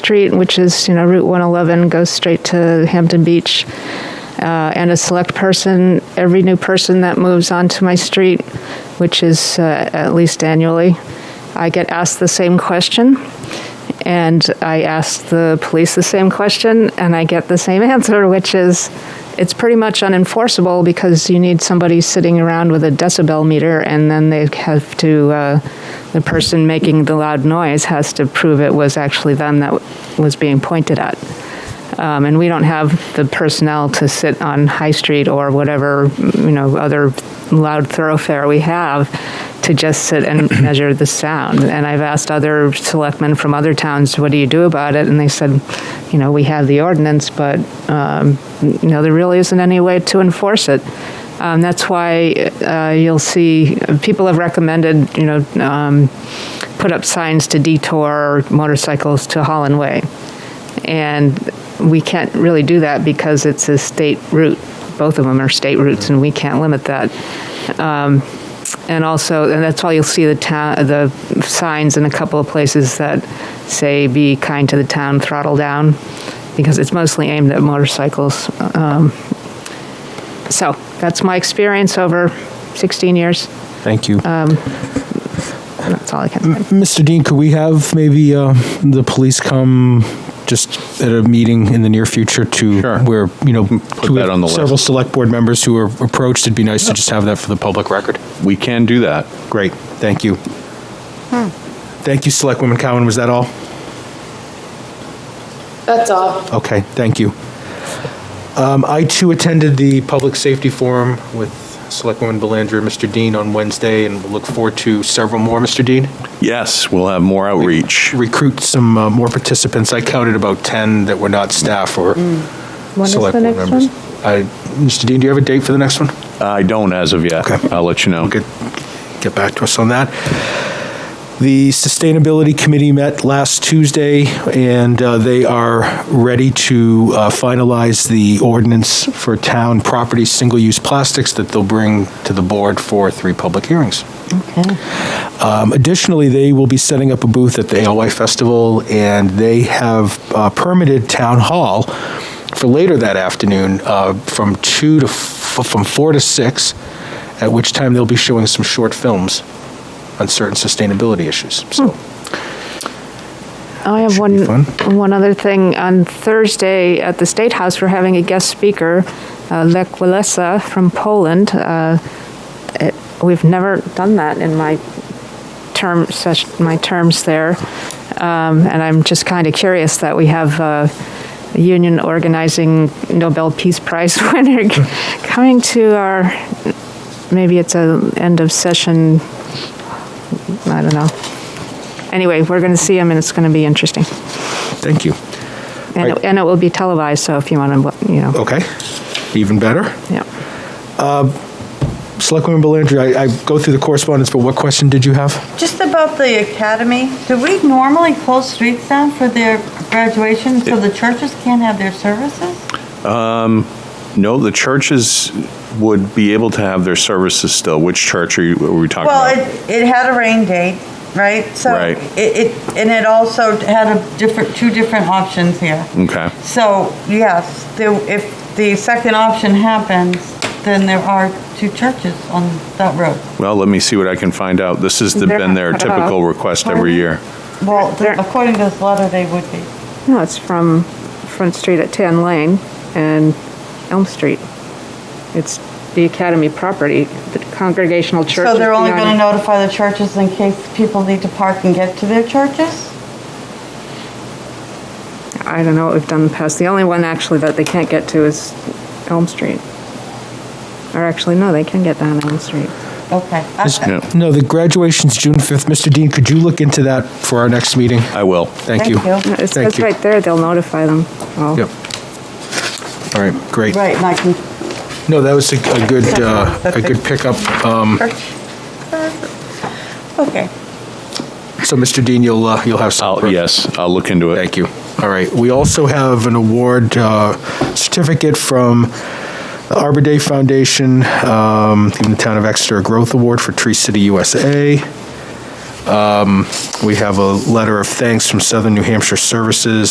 Street, which is, you know, Route 111 goes straight to Hampton Beach. Uh, and a select person, every new person that moves onto my street, which is uh, at least annually, I get asked the same question. And I ask the police the same question, and I get the same answer, which is it's pretty much unenforceable because you need somebody sitting around with a decibel meter, and then they have to, uh, the person making the loud noise has to prove it was actually them that w- was being pointed at. Um, and we don't have the personnel to sit on High Street or whatever, you know, other loud thoroughfare we have to just sit and measure the sound. And I've asked other selectmen from other towns, what do you do about it? And they said, you know, we have the ordinance, but, um, you know, there really isn't any way to enforce it. Um, that's why uh, you'll see people have recommended, you know, um, put up signs to detour motorcycles to Holland Way. And we can't really do that because it's a state route. Both of them are state routes, and we can't limit that. Um, and also, and that's why you'll see the town, the signs in a couple of places that say "Be kind to the town, throttle down," because it's mostly aimed at motorcycles. Um, so that's my experience over 16 years. Thank you. That's all I can say. Mr. Dean, could we have maybe uh, the police come just at a meeting in the near future to Sure. where, you know, Put we that have on the list. several select board members who are approached. It'd be nice to just have that for the public record. We can do that. Great. Thank you. Thank you, Selectwoman Cowan. Was that all? That's all. Okay, thank you. Um, I too attended the Public Safety Forum with Selectwoman Belanger and Mr. Dean on Wednesday, and we'll look forward to several more, Mr. Dean. Yes, we'll have more outreach. Recruit some uh, more participants. I counted about 10 that were not staff or select board members. I- Mr. Dean, do you have a date for the next one? I don't as of yet. Okay. I'll let you know. Get, get back to us on that. The Sustainability Committee met last Tuesday, and uh, they are ready to uh, finalize the ordinance for town property single-use plastics that they'll bring to the board for three public hearings. Um, Additionally, they will be setting up a booth at the ALY Festival, and they have uh, permitted Town Hall for later that afternoon uh, from two to, f- from four to six, at which time they'll be showing some short films on certain sustainability issues. So, Oh, I have Should be one, one other thing. On Thursday at the State House, we're having a guest speaker, uh, Lech Walesa from Poland. Uh, it- We've never done that in my term, such, my terms there. Um, And I'm just kind of curious that we have uh, a union organizing Nobel Peace Prize winner coming to our, maybe it's a end of session, I don't know. Anyway, we're going to see him, and it's going to be interesting. thank you. And, Right. Oh. it, and it will be televised, so if you want to, you know, Okay, even better. yeah. Selectwoman Belanger, I, I go through the correspondence, but what question did you have? Just about the academy, do we normally close streets down for their graduation so the churches can't have their services? No, the churches would be able to have their services still. Which church are, you, are we talking Well, about? it, it had a rain date, right? So Right. It, it, and it also had a different, two different options here. okay. So, yes, there, if the second option happens, then there are two churches on that road. Well, let me see what I can find out. This has the, They're been not their cut typical off. request every year. Well, There- according to this letter, they would be. No, it's from Front Street at Tan Lane and Elm Street. It's the Academy property, the Congregational Church. So is they're only going to behind- notify the churches in case people need to park and get to their churches? I don't know what we've done in the past. The only one actually that they can't get to is Elm Street. Or actually, no, they can get down Elm Street. Okay. I- Yeah, No, the graduation's June 5th. Mr. Dean, could you look into that for our next meeting? I will. Thank you. Thank No, It Thank says you. right there, they'll notify them. all. Yep. All right, great. Right, and I can, No, that was a a good, uh, a good pickup. Um, okay. So, Mr. Dean, you'll, uh, you'll have some. I'll, yes, I'll look into it. Thank you. All right. We also have an award uh, certificate from the Arbor Day Foundation, um, giving the Town of Exeter a Growth Award for Tree City USA. Um, We have a letter of thanks from Southern New Hampshire Services